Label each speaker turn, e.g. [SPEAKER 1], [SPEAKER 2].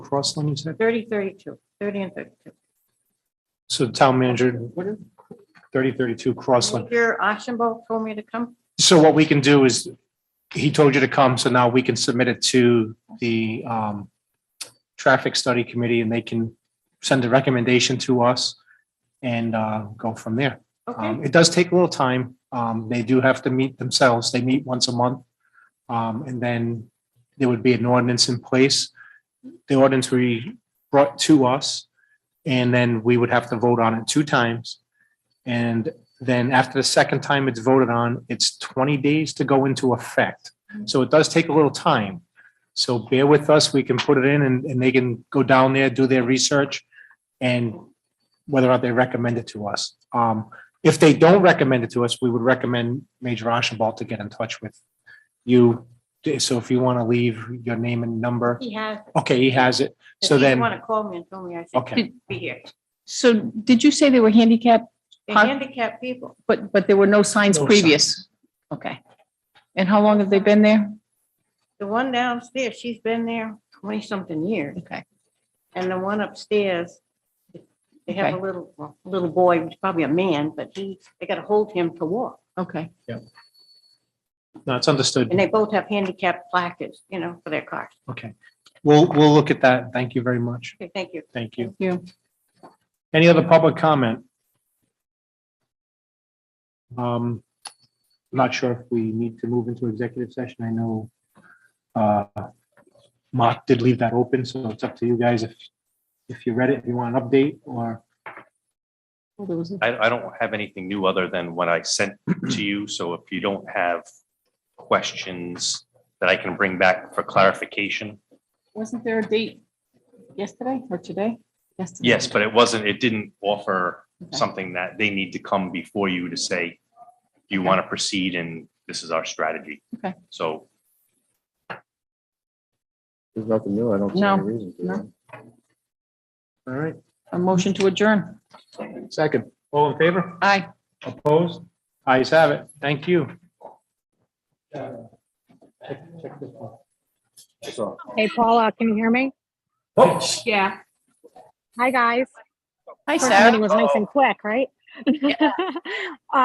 [SPEAKER 1] Crossland, you said?
[SPEAKER 2] 30, 32, 30 and 32.
[SPEAKER 1] So the town manager, what is thirty thirty-two Crossland.
[SPEAKER 2] Your Ashenbo told me to come.
[SPEAKER 1] So what we can do is, he told you to come, so now we can submit it to the um traffic study committee and they can send a recommendation to us and uh go from there.
[SPEAKER 2] Okay,
[SPEAKER 1] Um, it does take a little time. Um, they do have to meet themselves. They meet once a month. Um, and then there would be an ordinance in place. The ordinance we brought to us, and then we would have to vote on it two times. And then after the second time it's voted on, it's twenty days to go into effect. So it does take a little time. So bear with us. We can put it in and, and they can go down there, do their research and whether or not they recommend it to us. Um, if they don't recommend it to us, we would recommend Major Ashenbalt to get in touch with you. So if you want to leave your name and number,
[SPEAKER 2] he has.
[SPEAKER 1] okay, he has it. So then,
[SPEAKER 2] Want to call me and tell me I should
[SPEAKER 1] okay,
[SPEAKER 2] be here.
[SPEAKER 3] So did you say they were handicapped,
[SPEAKER 2] The
[SPEAKER 3] Huh?
[SPEAKER 2] handicapped people,
[SPEAKER 3] but, but there were no signs
[SPEAKER 1] No
[SPEAKER 3] previous? Okay. And how long have they been there?
[SPEAKER 2] the one downstairs, she's been there 20-something years.
[SPEAKER 3] Okay.
[SPEAKER 2] And the one upstairs, they have a little, well, little boy, he's probably a man, but he, they got to hold him to walk.
[SPEAKER 3] Okay.
[SPEAKER 1] no, it's understood.
[SPEAKER 2] And they both have handicapped placards, you know, for their cars.
[SPEAKER 1] Okay. We'll, we'll look at that. Thank you very much.
[SPEAKER 2] Okay, thank you.
[SPEAKER 1] Thank you.
[SPEAKER 3] Yeah.
[SPEAKER 1] Any other public comment? Um, not sure if we need to move into executive session. I know uh, Mark did leave that open, so it's up to you guys if, if you read it, if you want an update or,
[SPEAKER 4] I, I don't have anything new other than what I sent to you. So if you don't have questions that I can bring back for clarification.
[SPEAKER 3] Wasn't there a date yesterday or today? Yesterday.
[SPEAKER 4] Yes, but it wasn't, it didn't offer something that they need to come before you to say, do you want to proceed and this is our strategy.
[SPEAKER 3] Okay.
[SPEAKER 4] So
[SPEAKER 5] There's nothing new. I don't see
[SPEAKER 3] No,
[SPEAKER 5] any reason to.
[SPEAKER 3] no.
[SPEAKER 5] right?
[SPEAKER 1] all right,
[SPEAKER 3] A motion to adjourn.
[SPEAKER 1] second. All in favor?
[SPEAKER 3] Aye.
[SPEAKER 1] Opposed? Ayes have it. Thank you. Check- check this one.
[SPEAKER 5] So-
[SPEAKER 6] Hey, Paula, can you hear me?
[SPEAKER 1] Oh,
[SPEAKER 6] Yeah. Hi, guys.
[SPEAKER 3] Hi,
[SPEAKER 6] First meeting was nice and quick, right?